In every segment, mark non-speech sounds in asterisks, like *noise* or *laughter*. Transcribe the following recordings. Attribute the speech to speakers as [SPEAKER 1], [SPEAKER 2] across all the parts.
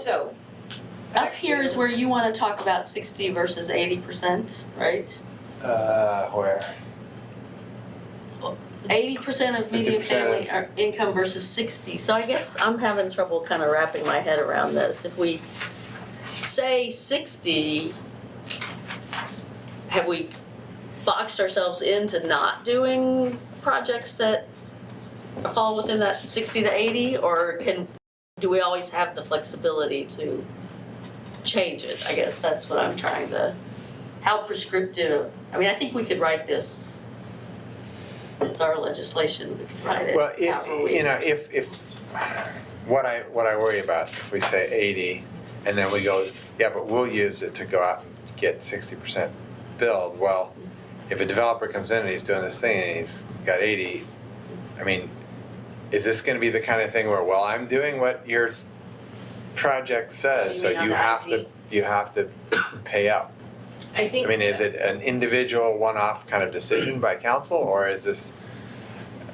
[SPEAKER 1] So.
[SPEAKER 2] Up here is where you wanna talk about sixty versus eighty percent, right?
[SPEAKER 3] Uh, where?
[SPEAKER 2] Eighty percent of median
[SPEAKER 3] 50%
[SPEAKER 2] family
[SPEAKER 3] of-
[SPEAKER 2] are income versus sixty, so I guess I'm having trouble kinda wrapping my head around this, if we say sixty, have we boxed ourselves into not doing projects that fall within that sixty to eighty, or can, do we always have the flexibility to change it, I guess that's what I'm trying to, how prescriptive, I mean, I think we could write this it's our legislation, we can write it
[SPEAKER 3] Well,
[SPEAKER 2] however
[SPEAKER 3] it,
[SPEAKER 2] we-
[SPEAKER 3] you know, if, if, what I, what I worry about, if we say eighty, and then we go, yeah, but we'll use it to go out and get sixty percent build, well, if a developer comes in and he's doing this thing and he's got eighty, I mean, is this gonna be the kind of thing where, well, I'm doing what your th- project says,
[SPEAKER 1] You
[SPEAKER 3] so
[SPEAKER 1] mean on
[SPEAKER 3] you
[SPEAKER 1] the
[SPEAKER 3] have to,
[SPEAKER 1] IZ?
[SPEAKER 3] you have to pay up?
[SPEAKER 1] I think.
[SPEAKER 3] I mean, is it an individual, one-off kind of decision by council, or is this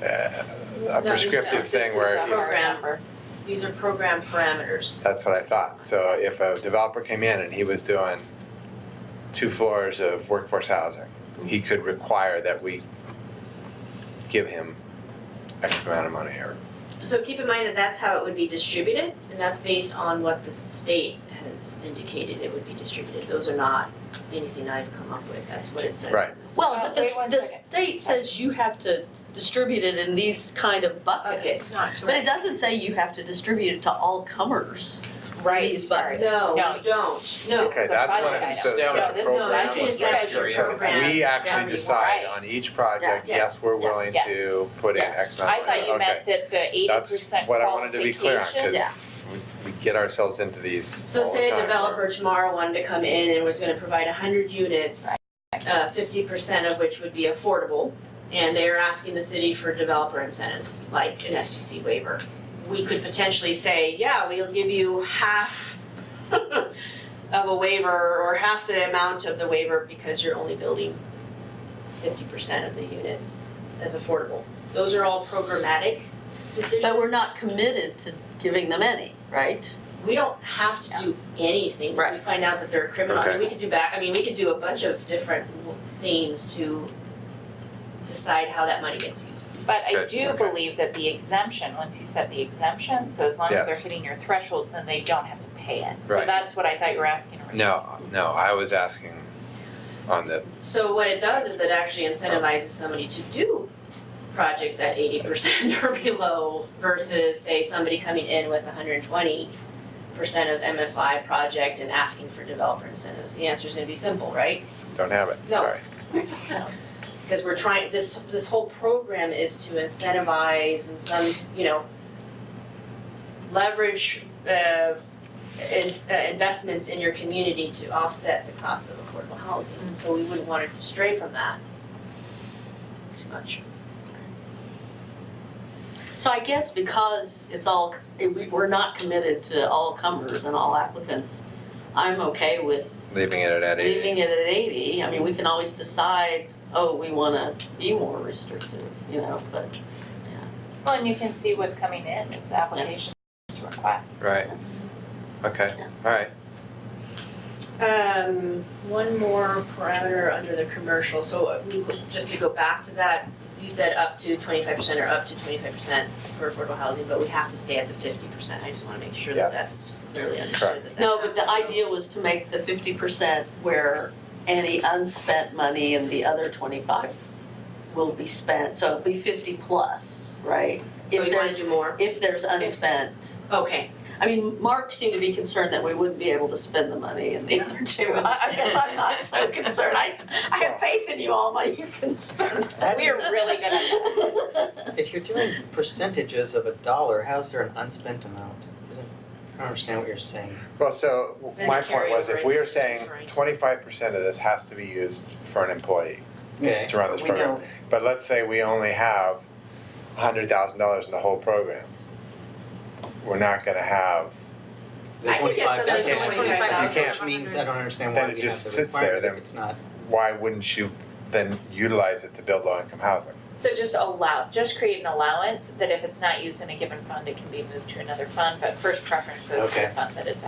[SPEAKER 3] uh, a
[SPEAKER 1] No, these-
[SPEAKER 3] prescriptive
[SPEAKER 1] this
[SPEAKER 3] thing
[SPEAKER 1] is
[SPEAKER 3] where,
[SPEAKER 1] a
[SPEAKER 3] if-
[SPEAKER 1] Program, these are program parameters.
[SPEAKER 3] that's what I thought. So if a developer came in and he was doing two floors of workforce housing, he could require that we give him X amount of money or,
[SPEAKER 1] So keep in mind that that's how it would be distributed, and that's based on what the state has indicated it would be distributed. Those are not anything I've come up with, that's what it says.
[SPEAKER 3] Right.
[SPEAKER 2] Well, but the,
[SPEAKER 4] Wait one
[SPEAKER 2] the
[SPEAKER 4] second.
[SPEAKER 2] state says you have to distribute it in these kind of
[SPEAKER 1] Buckets,
[SPEAKER 2] buckets.
[SPEAKER 1] not
[SPEAKER 2] But it doesn't say you have to distribute it to all comers.
[SPEAKER 4] Right,
[SPEAKER 2] These
[SPEAKER 4] sorry.
[SPEAKER 1] No,
[SPEAKER 4] No.
[SPEAKER 1] you don't, no.
[SPEAKER 3] okay,
[SPEAKER 4] is a
[SPEAKER 3] that's what,
[SPEAKER 4] project
[SPEAKER 3] I-
[SPEAKER 4] item.
[SPEAKER 3] so,
[SPEAKER 5] No,
[SPEAKER 3] so
[SPEAKER 4] this is
[SPEAKER 3] a
[SPEAKER 4] not-
[SPEAKER 3] program.
[SPEAKER 1] I just got your
[SPEAKER 3] So
[SPEAKER 1] program.
[SPEAKER 3] We
[SPEAKER 4] Yeah.
[SPEAKER 3] actually decide
[SPEAKER 4] Right.
[SPEAKER 3] on each project,
[SPEAKER 1] Yeah.
[SPEAKER 3] yes, we're
[SPEAKER 2] Yeah.
[SPEAKER 3] willing
[SPEAKER 4] Yes.
[SPEAKER 3] to put in
[SPEAKER 2] Yes.
[SPEAKER 3] X
[SPEAKER 4] I
[SPEAKER 3] amount of money, okay.
[SPEAKER 4] thought you meant that the eighty percent
[SPEAKER 3] That's
[SPEAKER 4] qualification.
[SPEAKER 3] what I wanted to be clear on,
[SPEAKER 2] Yeah.
[SPEAKER 3] because we, we get ourselves into these all
[SPEAKER 1] So
[SPEAKER 3] the
[SPEAKER 1] say a
[SPEAKER 3] time,
[SPEAKER 1] developer tomorrow wanted to come in and was gonna provide hundred units, uh, fifty percent of which would be affordable, and they are asking the city for developer incentives, like an SDC waiver. We could potentially say, yeah, we'll give you half *laughs* of a waiver, or half the amount of the waiver, because you're only building fifty percent of the units as affordable. Those are all programmatic decisions.
[SPEAKER 2] But we're not committed to giving them any, right?
[SPEAKER 1] We don't have to do anything, if we
[SPEAKER 2] Right.
[SPEAKER 1] find out that they're a criminal, I mean, we could do back, I mean, we could do a bunch of different w- things to decide how that money gets used.
[SPEAKER 4] But I
[SPEAKER 3] Good,
[SPEAKER 4] do
[SPEAKER 3] okay.
[SPEAKER 4] believe that the exemption, once you set the exemption, so as long as
[SPEAKER 3] Yes.
[SPEAKER 4] they're hitting your thresholds, then they don't have to pay it. So
[SPEAKER 3] Right.
[SPEAKER 4] that's what I thought you were asking
[SPEAKER 3] or-
[SPEAKER 4] originally.
[SPEAKER 3] No, no, I was asking on the,
[SPEAKER 1] So what it does is it actually incentivizes somebody to do projects at eighty percent *laughs* or below versus say somebody coming in with hundred and twenty percent of MFI project and asking for developer incentives. The answer's gonna be simple, right?
[SPEAKER 3] don't have it,
[SPEAKER 1] No.
[SPEAKER 3] sorry.
[SPEAKER 1] because we're trying, this, this whole program is to incentivize and some, you know, leverage, uh, ins- uh, investments in your community to offset the cost of affordable housing, so we wouldn't want to stray from that too much.
[SPEAKER 2] So I guess because it's all, it- we, we're not committed to all comers and all applicants, I'm okay with
[SPEAKER 3] Leaving it at eighty.
[SPEAKER 2] leaving it at eighty. I mean, we can always decide, oh, we wanna be more restrictive, you know, but
[SPEAKER 4] Well, and you can see what's coming in is the applications request.
[SPEAKER 3] Right, okay,
[SPEAKER 2] Yeah.
[SPEAKER 3] alright,
[SPEAKER 1] Um, one more parameter under the commercial, so uh, we, just to go back to that, you said up to twenty-five percent or up to twenty-five percent for affordable housing, but we have to stay at the fifty percent, I just wanna make sure that that's
[SPEAKER 3] Yes.
[SPEAKER 1] clearly understood that that.
[SPEAKER 2] No, but the
[SPEAKER 1] has to go.
[SPEAKER 2] idea was to make the fifty percent where any unspent money and the other twenty-five will be spent, so it'll be fifty plus, right?
[SPEAKER 1] Oh,
[SPEAKER 2] If
[SPEAKER 1] you wanna
[SPEAKER 2] there's,
[SPEAKER 1] do more?
[SPEAKER 2] if there's unspent,
[SPEAKER 1] Okay,
[SPEAKER 2] I mean, Mark seemed to be concerned that we wouldn't be able to spend the money in the *laughs* other two. I, I guess I'm not so concerned, I, I have faith in you all, but you can spend that.
[SPEAKER 4] We are really good at
[SPEAKER 2] *laughs*
[SPEAKER 4] that.
[SPEAKER 5] If you're doing percentages of a dollar, how's there an unspent amount? Isn't- I don't understand what you're saying.
[SPEAKER 3] well, so w-
[SPEAKER 1] Then
[SPEAKER 3] my
[SPEAKER 1] carry
[SPEAKER 3] point was,
[SPEAKER 1] over
[SPEAKER 3] if we
[SPEAKER 1] it,
[SPEAKER 3] are saying
[SPEAKER 1] right.
[SPEAKER 3] twenty-five percent of this has to be used for an employee
[SPEAKER 5] Okay.
[SPEAKER 3] to run this
[SPEAKER 5] We
[SPEAKER 3] program.
[SPEAKER 5] know,
[SPEAKER 3] But let's say we only have hundred thousand dollars in the whole program. We're not gonna have,
[SPEAKER 5] the
[SPEAKER 1] I think it's
[SPEAKER 5] twenty-five,
[SPEAKER 1] something
[SPEAKER 5] that
[SPEAKER 1] like
[SPEAKER 5] can't change,
[SPEAKER 1] 25,000.
[SPEAKER 5] which means I don't understand
[SPEAKER 3] Then
[SPEAKER 5] why
[SPEAKER 3] it
[SPEAKER 5] we
[SPEAKER 3] just
[SPEAKER 5] have the
[SPEAKER 3] sits there,
[SPEAKER 5] requirement
[SPEAKER 3] then-
[SPEAKER 5] if it's not.
[SPEAKER 3] why wouldn't you then utilize it to build low-income housing?
[SPEAKER 4] So just allow, just create an allowance that if it's not used in a given fund, it can be moved to another fund, but first preference goes to
[SPEAKER 5] Okay.
[SPEAKER 4] the fund that it's